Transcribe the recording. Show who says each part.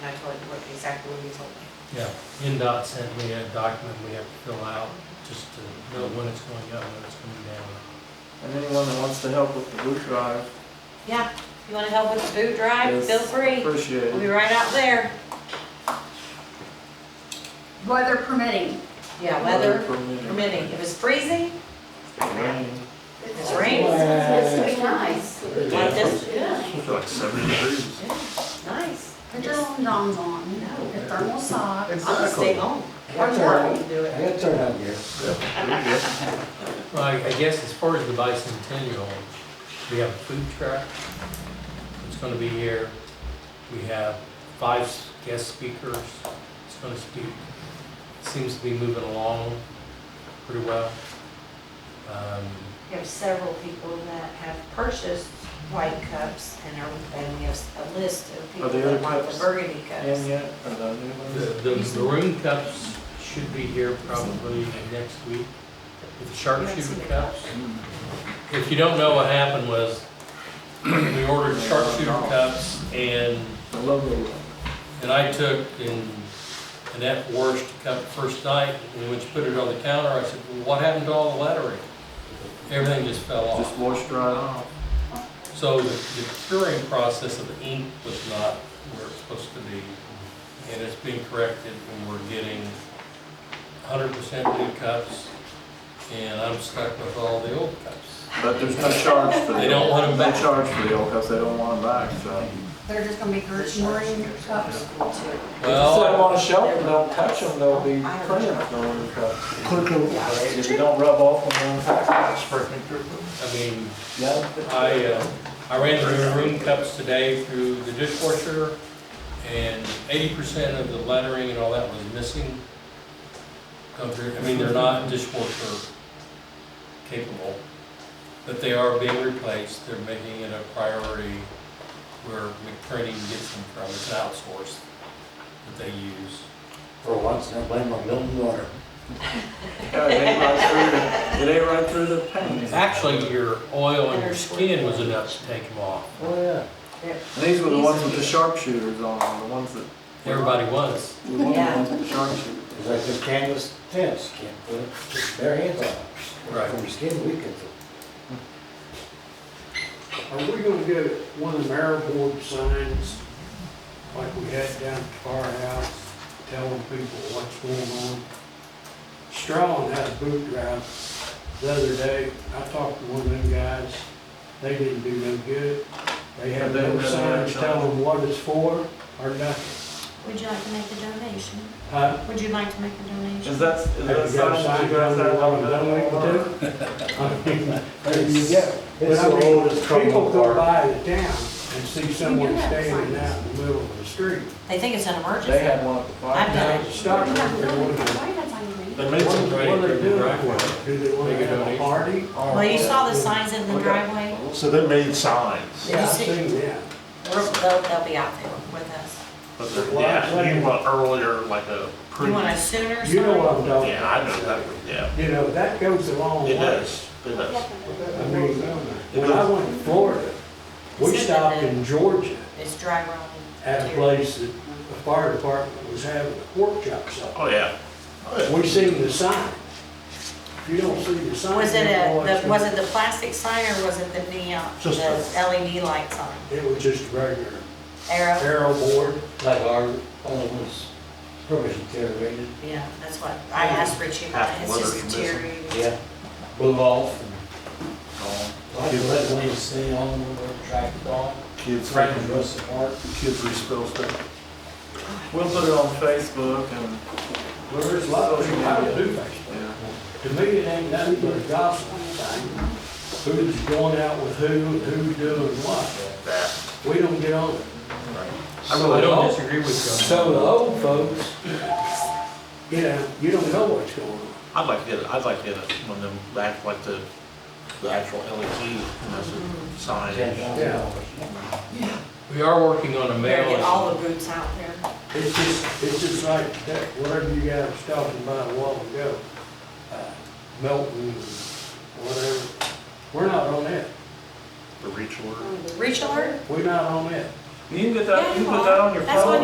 Speaker 1: and I told him what exactly what you told me.
Speaker 2: Yeah, NDOT sent me a document we have to fill out just to know when it's going up, when it's coming down.
Speaker 3: And anyone that wants to help with the boot drive
Speaker 1: Yeah, if you wanna help with the boot drive,
Speaker 3: is
Speaker 1: feel free. We'll be
Speaker 3: appreciated.
Speaker 1: right out there.
Speaker 4: Weather permitting.
Speaker 1: Yeah, weather
Speaker 3: permitting.
Speaker 1: permitting. If it's freezing,
Speaker 3: Rain.
Speaker 1: It's raining.
Speaker 4: It's gonna be nice.
Speaker 1: like this,
Speaker 4: Yeah.
Speaker 5: It's like seventy degrees.
Speaker 1: yeah, nice.
Speaker 4: Put your own dongs on, your thermal socks.
Speaker 1: I'll just stay home.
Speaker 6: Yeah,
Speaker 1: Or
Speaker 6: it's all right.
Speaker 1: work and do it.
Speaker 6: Good turnout here.
Speaker 2: Well, I- I guess as far as the bicentennial, we have a food truck that's gonna be here. We have five s- guest speakers that's gonna speak. Seems to be moving along pretty well. Um,
Speaker 1: We have several people that have purchased white cups and are, and we have a list of people
Speaker 3: Are there
Speaker 1: that want
Speaker 3: cups?
Speaker 1: the burgundy
Speaker 3: In
Speaker 1: cups.
Speaker 3: yet, or the new
Speaker 2: The,
Speaker 3: ones?
Speaker 2: the maroon cups should be here probably next week, with the sharpshooter cups. If you don't know what happened was, we ordered sharpshooter cups and
Speaker 3: The logo.
Speaker 2: And I took and Annette Worst cup the first night, and when she put it on the counter, I said, well, what happened to all the lettering? Everything just fell
Speaker 3: Just
Speaker 2: off.
Speaker 3: washed right off.
Speaker 2: So the the curing process of the ink was not where it's supposed to be, and it's being corrected, and we're getting hundred percent new cups, and I'm stuck with all the old cups.
Speaker 3: But there's no charge for the.
Speaker 2: They don't want 'em back.
Speaker 3: No charge for the old cups, they don't want them back, so.
Speaker 4: They're just gonna be green cups.
Speaker 3: If you set them
Speaker 2: Well,
Speaker 3: on a shelf and don't touch them, they'll be clear, the little cups. And If you don't rub off on them,
Speaker 2: I mean,
Speaker 3: yeah.
Speaker 2: I, uh, I ran the maroon cups today through the dishwasher, and eighty percent of the lettering and all that was missing. Come through. I mean, they're not dishwasher capable, but they are being replaced, they're making it a priority where McCready gets them from, it's outsourced that they use.
Speaker 6: For once, I blame my Milton water.
Speaker 3: Yeah, It ain't right through the, it ain't right through the paint.
Speaker 2: Actually, your oil and your skin was enough to take them off,
Speaker 6: Oh, yeah.
Speaker 3: And These were the ones with the sharpshooters on, them, the ones that.
Speaker 2: everybody was.
Speaker 3: We want the
Speaker 1: Yeah.
Speaker 3: ones with the sharpshooters.
Speaker 6: It's like this canvas fence, can't put it- their hands on it.
Speaker 2: Right.
Speaker 6: From your skin weakens it.
Speaker 7: Are we gonna get one of them airborne signs like we had down at the firehouse, telling people what's going on? Strawn had a boot drive the other day. I talked to one of them guys. They didn't do no good. They had
Speaker 3: They
Speaker 7: no
Speaker 3: had
Speaker 7: signs
Speaker 3: no-
Speaker 7: telling them what it's for or nothing.
Speaker 4: Would you like to make a donation?
Speaker 7: Huh?
Speaker 4: Would you like to make a donation?
Speaker 3: Is that, is
Speaker 7: Have
Speaker 3: that
Speaker 7: you got a
Speaker 3: something
Speaker 7: sign
Speaker 3: that you guys
Speaker 7: down there
Speaker 3: have
Speaker 7: what
Speaker 3: on
Speaker 7: a
Speaker 3: the
Speaker 7: donate to? I mean,
Speaker 6: There you go.
Speaker 7: But
Speaker 6: It's
Speaker 7: I
Speaker 6: the
Speaker 7: mean,
Speaker 6: oldest
Speaker 7: people
Speaker 6: trouble
Speaker 7: go
Speaker 6: part.
Speaker 7: by the town and see someone standing out in the middle of the street.
Speaker 1: They think it's an
Speaker 3: They
Speaker 1: emergency.
Speaker 3: had one at the
Speaker 1: I've
Speaker 3: fire.
Speaker 1: done
Speaker 7: Now, stop
Speaker 4: You
Speaker 7: and
Speaker 4: have
Speaker 7: wonder,
Speaker 4: another
Speaker 7: what
Speaker 4: cup.
Speaker 7: are
Speaker 4: Why you got something to
Speaker 2: They
Speaker 4: eat?
Speaker 2: made some
Speaker 7: they-
Speaker 2: great
Speaker 7: what are they doing
Speaker 2: driveway.
Speaker 7: for? Do they want
Speaker 2: Make
Speaker 7: to
Speaker 2: a
Speaker 7: have a
Speaker 2: donation.
Speaker 7: party?
Speaker 1: Well, you saw the signs in the driveway.
Speaker 5: So they made signs.
Speaker 1: Yeah.
Speaker 7: I've seen
Speaker 1: We're-
Speaker 7: that.
Speaker 1: They'll, they'll be out there with us.
Speaker 5: But they're- yeah, you want earlier, like a pre.
Speaker 1: You want
Speaker 5: Yeah,
Speaker 1: a sooner sign?
Speaker 7: You know uh, what I'm talking
Speaker 5: I know
Speaker 7: about.
Speaker 5: that, yeah.
Speaker 7: You know, that goes a long
Speaker 5: It
Speaker 7: way.
Speaker 5: does, it does.
Speaker 7: I mean,
Speaker 5: It
Speaker 7: when I
Speaker 5: goes-
Speaker 7: went to Florida, we
Speaker 1: It's
Speaker 7: stopped
Speaker 1: different.
Speaker 7: in Georgia
Speaker 1: It's dry run.
Speaker 7: at a place that the fire department was having a pork chop sale.
Speaker 5: Oh, yeah. Oh, yeah.
Speaker 7: We seen the sign. If you don't see the sign.
Speaker 1: Was it
Speaker 7: you don't know
Speaker 1: a,
Speaker 7: what's
Speaker 1: the-
Speaker 7: going
Speaker 1: was it the plastic sign or was it the neon, the E
Speaker 5: Just a-
Speaker 1: LED light sign?
Speaker 7: It was just a regular
Speaker 1: Arrow?
Speaker 7: arrow board.
Speaker 6: Like our, all of us, probably deteriorated.
Speaker 1: Yeah, that's what, I asked Richie about it, it's
Speaker 5: Half
Speaker 1: just
Speaker 5: weather's missing.
Speaker 1: deteriorating.
Speaker 6: Yeah. Blew off and.
Speaker 5: Gone.
Speaker 6: Like you let one stay on, we were tracked off.
Speaker 3: Kids,
Speaker 6: Frank and Russ apart.
Speaker 3: kids respill stuff. We'll put it on Facebook and,
Speaker 7: Well, there's a lot of people out do Facebook.
Speaker 3: yeah.
Speaker 7: To me, it ain't nothing but a gossip thing. Who's going out with who, and who's doing what.
Speaker 5: That.
Speaker 7: We don't get on it.
Speaker 2: I really don't disagree with you.
Speaker 3: So the old folks,
Speaker 7: You know, you don't know what's going on.
Speaker 5: I'd like to get it, I'd like to get it, one of them, back like the, the actual E LED, you know, so- sign.
Speaker 6: Ten thousand dollars.
Speaker 2: We are working on a
Speaker 1: Better
Speaker 2: mail.
Speaker 1: get all the boots out there.
Speaker 7: It's just, it's just like that, whatever you guys was talking about a while ago, uh, Melton, and whatever. We're not on that.
Speaker 5: The reach order.
Speaker 1: Reach alert?
Speaker 7: We're not on that.
Speaker 3: you can get
Speaker 1: Yeah,
Speaker 3: that, you
Speaker 1: you
Speaker 3: can put
Speaker 1: are.
Speaker 3: that on your phone.
Speaker 1: That's what